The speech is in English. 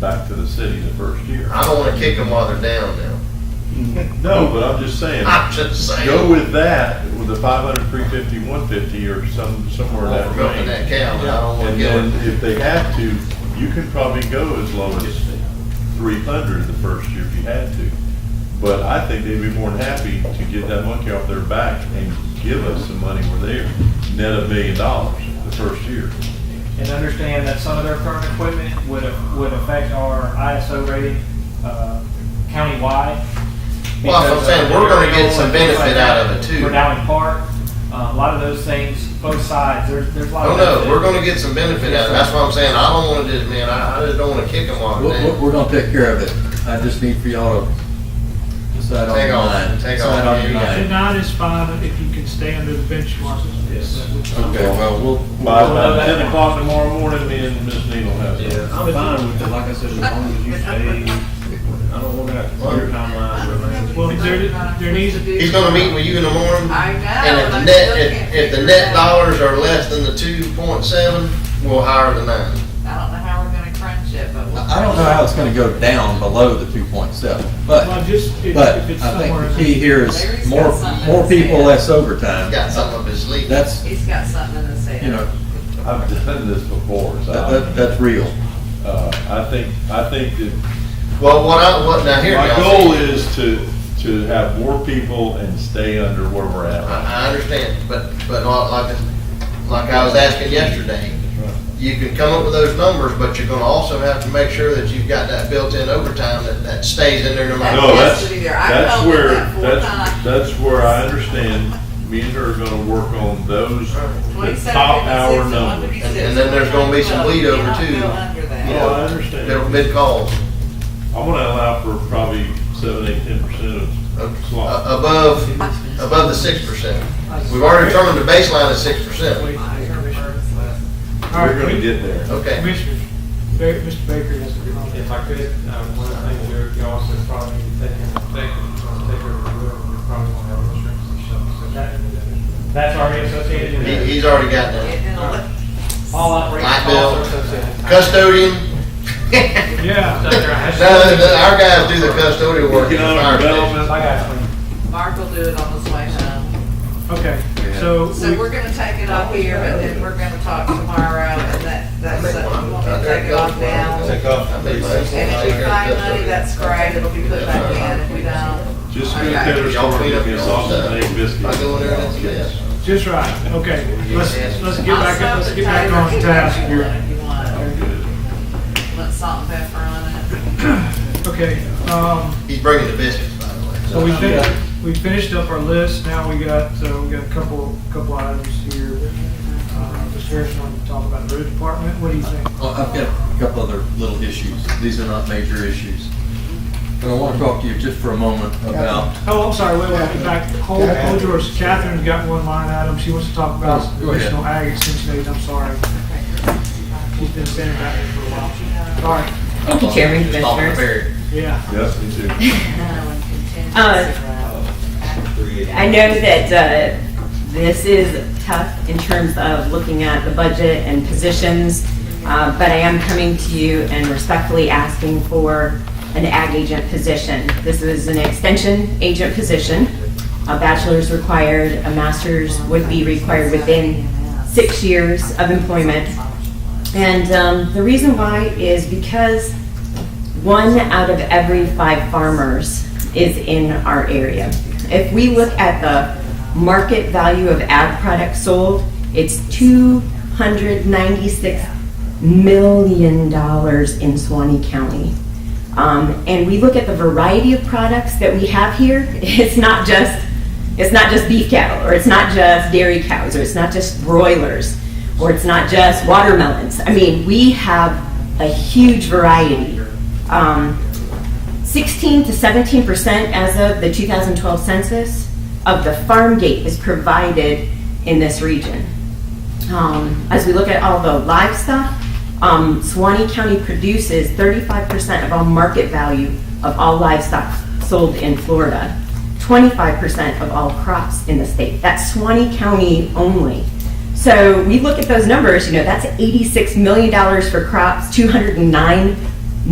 back to the city the first year. I don't wanna kick them while they're down now. No, but I'm just saying, I'm just saying. go with that, with the 500, 350, 150, or some, somewhere in I'm that range. milking that cow, but I don't wanna And get then it. if they have to, you can probably go as low as three hundred the first year if you had to. But I think they'd be more than happy to get that monkey off their back and give us some money where they're net a million dollars the first year. and understand that some of their current equipment would, would affect our ISO rating, uh, countywide. Well, that's what I'm saying. We're gonna get some benefit out of it, too. For Dowling Park, uh, a lot of those things, both sides, there's, there's a I lot of. don't know, benefit. Oh, we're gonna get some benefit out of it, that's what I'm saying, I don't wanna just, man, I, I just don't wanna kick them while We're, they're we're- down. we're gonna take care of it. I just need for y'all to decide on Take your off, mind. take Decide off. on your Yeah. And mind. nine is fine if you can stay under the benchmark. Yes. Okay, well, we'll. By about ten o'clock tomorrow morning, me and Ms. Neal have it. Yeah, I'm fine with it, like I said, as long as you stay, I don't want that clear timeline, Well, there, there needs, He's gonna meet with you in the morning, I know. and if the I'm net, looking if, at if the figuring net out. dollars are less than the two point seven, we'll hire the nine. I don't know how we're gonna crunch it, but we'll. I I don't know how it's gonna go down below the two point seven, well, but, just if if but it's I somewhere. think the key here is Larry's more, got something more to say. people, less overtime. Uh, He's got something up his sleeve. That's, He's got something to say. you know, I've done this before, so that, that, that's real. I, uh, I think, I think that Well, what I, what, now here. My y'all see. goal is to, to have more people and stay under where we're at. I, I understand, but, but not like, like I was asking yesterday, you can come up with those numbers, but you're gonna also have to make sure that you've got that built-in overtime that, that stays in there no matter. No, what. that's, Yes, to be there. I that's felt it where, that full that's, time. that's where I understand, me and her are gonna work on those, the 27, top hour 56, numbers. 156. And then there's gonna be some bleed over, Cannot too. go under that. No, I Little understand. mid-calls, I wanna allow for probably seven, eight, ten percent of uh, slot. above, above the six percent. We've already determined the baseline is six percent, All right, We're gonna get there. okay. Commissioners, Ba- Mr. Baker has a comment. If I could, uh, one of the things you're, you also probably need to take into effect, if you want to take over the road, you probably want to have insurance and stuff. That's already associated with He, it. he's already got that. Getting in a lift. All operating Light costs are bill. associated. Custodian, Yeah, no, our guys do the custodial work. in the fire Economic station. development. I got you. Mark will do it on his way home. okay, so. So we're gonna take it off here, but then we're gonna talk tomorrow and that, that's, we want to take it off now. And Take off. And if we find money, that's great, it'll be put back in if we don't. Just go Okay. Taylor Y'all Swift, clean up give me a your sausage stuff. and egg biscuit. I go in there and it's- Yes. Just right, okay, let's, let's get back, I'll let's stop get the back timer on task here. If you want, or Good. put salt and pepper on it. Okay, um, He's bringing the biscuits, by the way. So we finished, we finished up our list, now we got, so we got a couple, couple items here. Uh, Mr. Harrison wanted to talk about the road department, what do you think? Well, uh, I've got a couple other little issues. These are not major issues. But I want to talk to you just for a moment about, Oh, I'm sorry, wait, wait, in fact, hold, hold yours, Catherine's got one line item, she wants to talk about Oh, Go ahead. additional ag extension aid, I'm sorry. She's been standing back there for a while, sorry, Thank you, Chairman, uh, just talking to Commissioners. Barry. yeah. Yes, me too. I know that uh, this is tough in terms of looking at the budget and positions, uh, but I am coming to you and respectfully asking for an ag agent position. This is an extension agent position. A bachelor's required, a master's would be required within six years of employment. And um, the reason why is because one out of every five farmers is in our area. If we look at the market value of ag products sold, it's $296 million in Suwannee County. Um, And we look at the variety of products that we have here, it's not just, it's not just beef cattle, or it's not just dairy cows, or it's not just broilers, or it's not just watermelons. I mean, we have a huge variety. Um, 16 to 17 percent as of the 2012 census of the farm gate is provided in this region. Um, As we look at all the livestock, um, Suwannee County produces 35 percent of all market value of all livestock sold in Florida, 25 percent of all crops in the state. That's Suwannee County only. So we look at those numbers, you know, that's $86 million for crops, $209